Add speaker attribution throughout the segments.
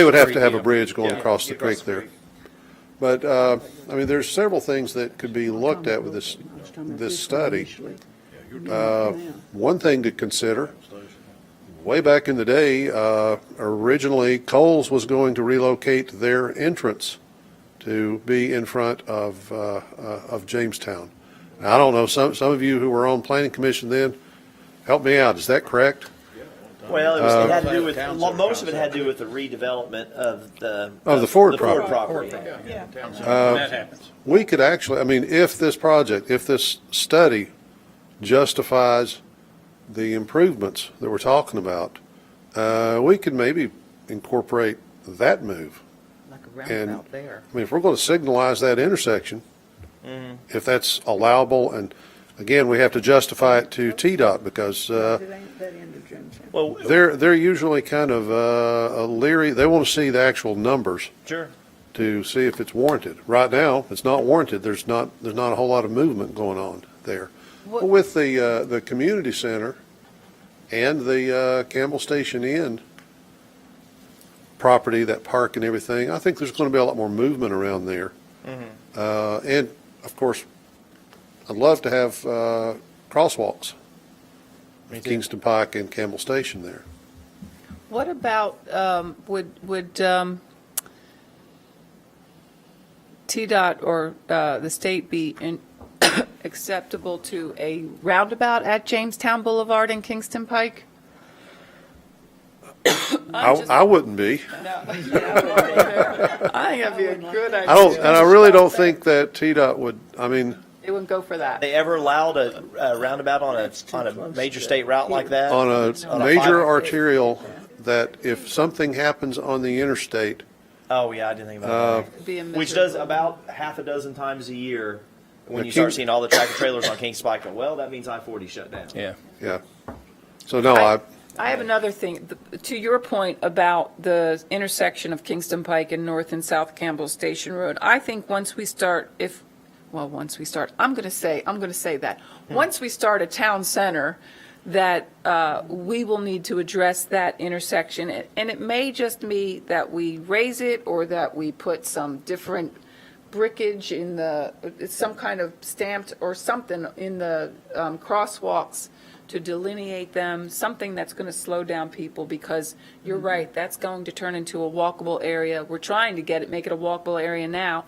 Speaker 1: They would have to have a
Speaker 2: Yeah.
Speaker 1: bridge going
Speaker 2: Yeah.
Speaker 1: across the creek there. But, uh, I mean, there's several things that could be looked at with this, this study. Uh, One thing to consider, way back in the day, uh, originally Coles was going to relocate their entrance to be in front of, uh, uh, of Jamestown. Now, I don't know, some, some of you who were on planning commission then, help me out, is that correct?
Speaker 3: Well, it, was, it had to do with
Speaker 2: Uh,
Speaker 3: well, most of it had to do with the redevelopment of the
Speaker 1: Of the Ford
Speaker 3: property.
Speaker 2: That happens.
Speaker 1: we could actually, I mean, if this project, if this study justifies the improvements that we're talking about, uh, we could maybe incorporate that move.
Speaker 4: Like a
Speaker 1: And,
Speaker 4: roundabout there.
Speaker 1: I mean, if we're going to signalize that intersection, if that's allowable, and again, we have to justify it to TDOT because, uh,
Speaker 4: It ain't that end of Jamestown.
Speaker 3: Well,
Speaker 1: they're, they're usually kind of, uh, leery, they want to see the actual numbers
Speaker 3: sure.
Speaker 1: to see if it's warranted. Right now, it's not warranted. There's not, there's not a whole lot of movement going on there. But With the, uh, the community center and the, uh, Campbell Station Inn property, that park and everything, I think there's gonna be a lot more movement around there. Uh, and of course, I'd love to have, uh, crosswalks. at Kingston Pike and Campbell Station there.
Speaker 4: What about, um, would, would, um, TDOT or, uh, the state be in, acceptable to a roundabout at Jamestown Boulevard and Kingston Pike?
Speaker 1: I, I wouldn't be.
Speaker 4: I think that'd be a good idea.
Speaker 1: I don't, and I really don't think that TDOT would, I mean,
Speaker 4: They wouldn't go for that.
Speaker 3: They ever allowed a, a roundabout on a on a major state route like that?
Speaker 1: Uh, on
Speaker 3: On
Speaker 1: a
Speaker 3: a
Speaker 1: major
Speaker 3: five-
Speaker 1: arterial that if something happens on the interstate,
Speaker 3: Oh yeah, I didn't think about
Speaker 4: It'd be a
Speaker 3: that. Which
Speaker 4: miserable-
Speaker 3: does about half a dozen times a year. When
Speaker 1: The
Speaker 3: you start
Speaker 1: King-
Speaker 3: seeing all the tractor trailers on King Spike, go, well, that means I forty shut down.
Speaker 2: Yeah.
Speaker 1: yeah. So no, I,
Speaker 4: I have another thing, The- to your point about the intersection of Kingston Pike and North and South Campbell Station Road. I think once we start, if, well, once we start, I'm going to say, I'm going to say that. Once we start a town center, that uh, we will need to address that intersection. And- And it may just be that we raise it or that we put some different brickage in the, it's some kind of stamped or something in the um, crosswalks to delineate them, something that's going to slow down people, because you're right, that's going to turn into a walkable area. We're trying to get it, make it a walkable area now,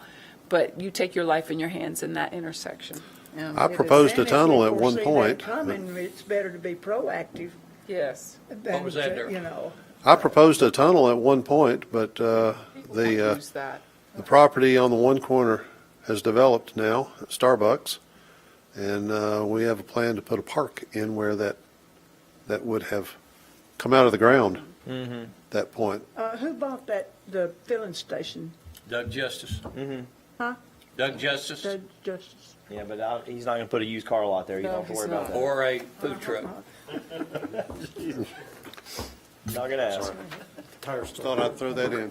Speaker 4: but you take your life in your hands in that intersection. Um,
Speaker 1: I proposed a tunnel at one point.
Speaker 5: And if you foresee that coming, it's better to be proactive
Speaker 4: Yes.
Speaker 5: than,
Speaker 2: was that,
Speaker 5: to,
Speaker 2: Derek?
Speaker 5: you know.
Speaker 1: I proposed a tunnel at one point, but, uh, the, uh,
Speaker 4: Use that.
Speaker 1: the property on the one corner has developed now, Starbucks. And, uh, we have a plan to put a park in where that, that would have come out of the ground. That point.
Speaker 5: Uh, who bought that, the filling station?
Speaker 2: Doug Justice.
Speaker 5: Huh?
Speaker 2: Doug Justice
Speaker 5: The Justice?
Speaker 3: Yeah, but I, he's not going to put a used car lot there. You
Speaker 4: No,
Speaker 3: don't have to
Speaker 4: he's
Speaker 3: worry
Speaker 4: not.
Speaker 3: about that.
Speaker 2: or a food truck.
Speaker 3: Not going to ask.
Speaker 1: Thought I'd throw that in.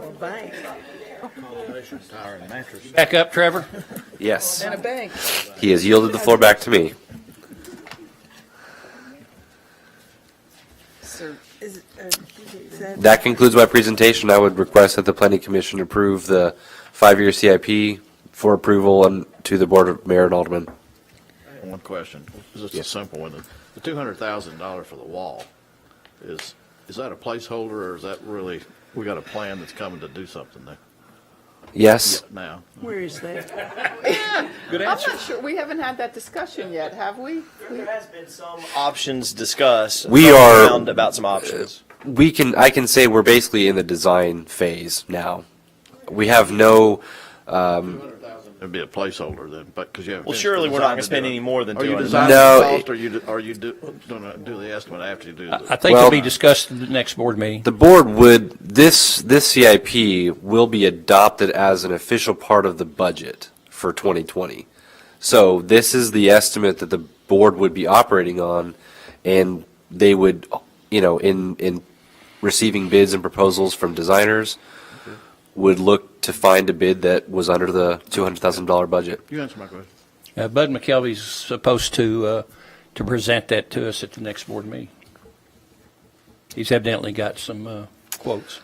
Speaker 5: Or bank?
Speaker 2: Back up, Trevor.
Speaker 6: Yes,
Speaker 4: And a bank.
Speaker 6: he has yielded the floor back to me.
Speaker 4: So
Speaker 5: Is, uh, is that-
Speaker 6: That concludes my presentation. I would request that the planning commission approve the five-year CIP for approval and to the board of mayor and aldermen.
Speaker 7: One question, just a simple one. The two hundred thousand dollars for the wall, is, is that a placeholder or is that really, we got a plan that's coming to do something there
Speaker 6: Yes?
Speaker 7: now?
Speaker 5: Where is that?
Speaker 2: Good
Speaker 4: I'm
Speaker 2: answer.
Speaker 4: not sure, we haven't had that discussion yet, have we?
Speaker 3: There has been some options discussed.
Speaker 6: We
Speaker 3: thrown
Speaker 6: are-
Speaker 3: around about some options.
Speaker 6: We can, I can say we're basically in the design phase now. We have no,
Speaker 7: It'd be a placeholder then, but, because you haven't.
Speaker 3: Well,
Speaker 7: finished
Speaker 3: surely
Speaker 7: the
Speaker 3: we're not
Speaker 7: design
Speaker 3: gonna spend
Speaker 7: to do it.
Speaker 3: any more than
Speaker 7: Are you
Speaker 3: 200,000.
Speaker 7: designing the
Speaker 6: No,
Speaker 7: cost
Speaker 6: it-
Speaker 7: or you, do- are you do, gonna do the estimate after you do
Speaker 2: I
Speaker 7: the?
Speaker 2: think
Speaker 6: Well-
Speaker 2: it'll be discussed in the next board meeting.
Speaker 6: the board would, this, this CIP will be adopted as an official part of the budget for 2020. So this is the estimate that the board would be operating on, and they would, you know, in, in receiving bids and proposals from designers, would look to find a bid that was under the $200,000 budget.
Speaker 7: You answer my question.
Speaker 2: Uh, Bud McKelvey's supposed to, uh, to present that to us at the next board meeting. He's evidently got some, uh, quotes.